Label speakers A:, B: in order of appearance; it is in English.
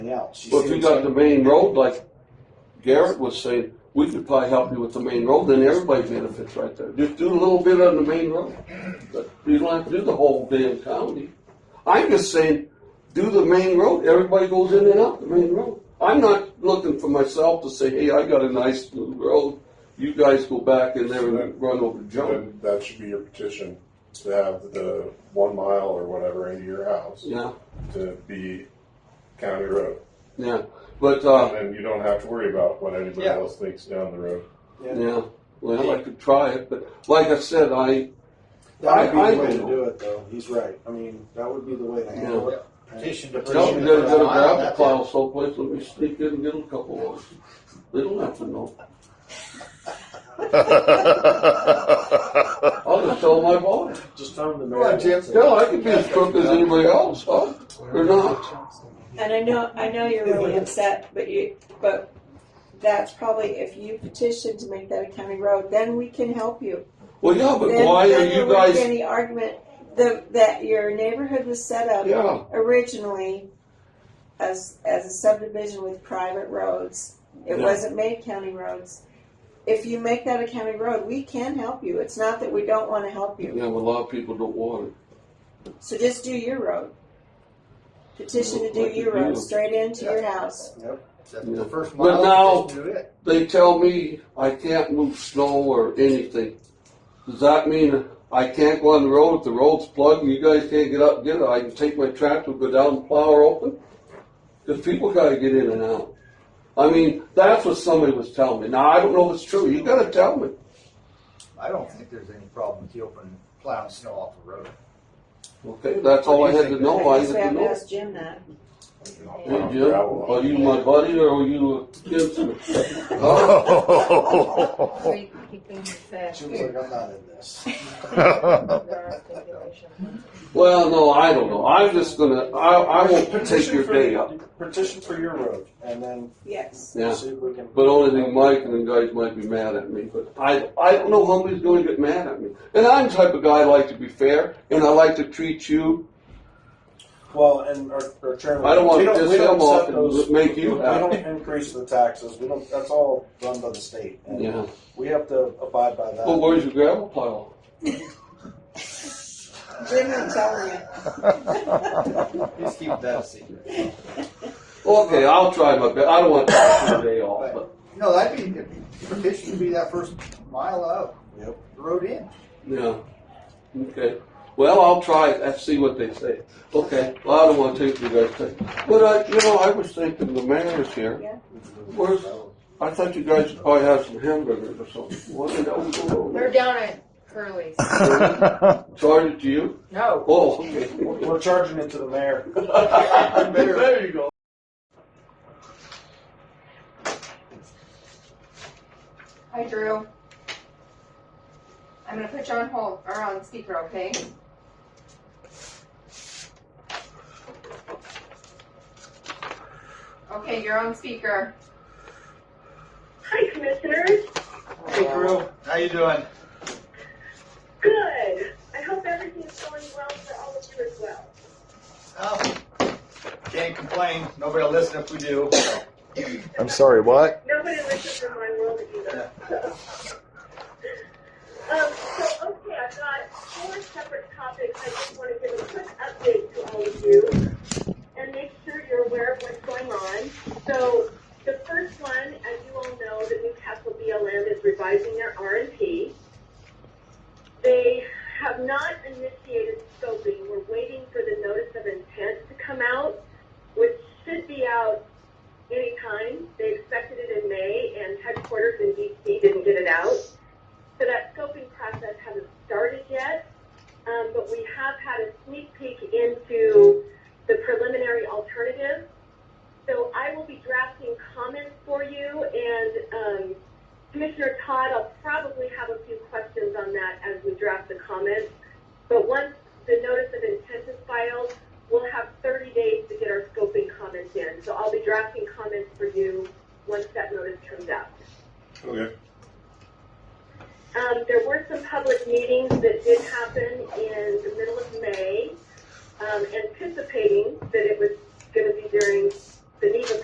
A: else.
B: Well,
A: see
B: if you
A: what I'm
B: got the
A: saying?
B: main road, like Garrett was saying, we could probably help you with the main road, then everybody benefits right there. Just do a little bit on the main road. But you don't have to do the whole damn county. I'm just saying, do the main road, everybody goes in and out the main road. I'm not looking for myself to say, hey, I got a nice new road, you guys go back in there and run over junk.
C: Then that should be your petition, to have the one mile or whatever into your house
B: Yeah,
C: to be county road. Um,
B: yeah, but, uh,
C: And then you don't have to worry about what anybody
A: Yeah.
C: else thinks down the road.
B: yeah, well, I could try it, but like I said, I,
A: That
B: I-
A: would be the
B: I
A: way to
B: don't.
A: do it, though. He's right. I mean, that would be the way to handle it.
D: Petition to
B: No,
D: petition.
B: you
D: to
B: gotta,
D: put
B: gotta
D: a mile,
B: grab the
D: that's
B: plow someplace, let me sneak in and get a couple of them. They don't have to know. I'll just tell my boss.
A: Just tell him the
D: Go on, Jim.
B: Hell, I could be as crook as anybody else, huh? Or not.
E: And I know, I know you're really upset, but you, but that's probably, if you petition to make that a county road, then we can help you.
B: Well, yeah, but
E: Then-
B: why are
E: then there
B: you
E: wouldn't be
B: guys,
E: Any argument that, that your neighborhood was set up
B: yeah,
E: originally as, as a subdivision with private roads. It
B: Yeah.
E: wasn't made county roads. If you make that a county road, we can help you. It's not that we don't wanna help
B: yeah,
E: you.
B: but a lot of people don't want it.
E: So just do your road. Petition to do
B: Like you
E: your road,
B: do.
E: straight into your house.
D: it. The first
B: But now-
D: mile, petition to it.
B: They tell me I can't move snow or anything. Does that mean I can't go on the road if the road's plugged and you guys can't get up and get it? I can take my tractor, go down and plow her open? Because people gotta get in and out. I mean, that's what somebody was telling me. Now, I don't know if it's true. You gotta tell me.
D: I don't think there's any problem with you opening plowing snow off the road.
B: Okay, that's all I had to know. I
E: guess
B: had
E: we
B: to
E: have to
B: know.
E: ask Jim that.
B: Hey, Jim, are you my buddy or are you a Gibson? Huh?
F: Oh.
G: We keep things set.
A: Jim's like, I'm not in this.
G: There are stipulations.
B: Well, no, I don't know. I'm just gonna, I, I won't take your day up.
A: Petition for your road, and then
E: Yes.
B: Yeah.
A: see if we can.
B: But only thing Mike and the guys might be mad at me, but I, I don't know how he's going to get mad at me. And I'm the type of guy I like to be fair, and I like to treat you.
A: Well, and our, our chairman.
B: I don't wanna
A: we we
B: piss
A: don't
B: him off
A: set
B: and
A: those-
B: make you
A: We
B: happy.
A: don't increase the taxes. We don't. That's all run by the state. and
B: Yeah.
A: We have to abide by that.
B: Well, where's your gravel pile?
E: Jim, I'm telling you.
D: Just keep that a secret.
B: Okay, I'll try my best. I don't want to take your day off, but
D: No, that'd be, the petition would be that first mile out,
A: Yep.
D: the road in.
B: yeah. Okay. Well, I'll try it and see what they say. Okay. Well, I don't want to take your guys' day. But I, you know, I was thinking the mayor's here.
E: Yeah.
B: Where's? I thought you guys probably had some hamburgers or something. What did I go over?
G: They're down at Curly's.
B: Charged to you?
G: No.
B: Oh, okay.
A: We're we're charging it to the mayor.
B: There you go.
G: Hi, Drew. I'm gonna put you on hold, or on speaker, okay? Okay, you're on speaker.
H: Hi, Commissioners.
D: Hey, Drew, how you doing?
H: Good. I hope everything's going well for all of you as well.
D: Oh, can't complain, nobody'll listen if we do.
F: I'm sorry, what?
H: Nobody listens in my world either. Um, so, okay, I've got four separate topics. I just want to give a quick update to all of you and make sure you're aware of what's going on. So, the first one, as you all know, the Newcastle BLM is revising their R&P. They have not initiated scoping. We're waiting for the notice of intent to come out, which should be out anytime. They expected it in May, and headquarters in DC didn't get it out. So that scoping process hasn't started yet, um, but we have had a sneak peek into the preliminary alternative. So I will be drafting comments for you, and um, Commissioner Todd, I'll probably have a few questions on that as we draft the comments. But once the notice of intent is filed, we'll have 30 days to get our scoping comments in. So I'll be drafting comments for you once that notice comes out.
C: Okay.
H: Um, there were some public meetings that did happen in the middle of May, um, anticipating that it was going to be during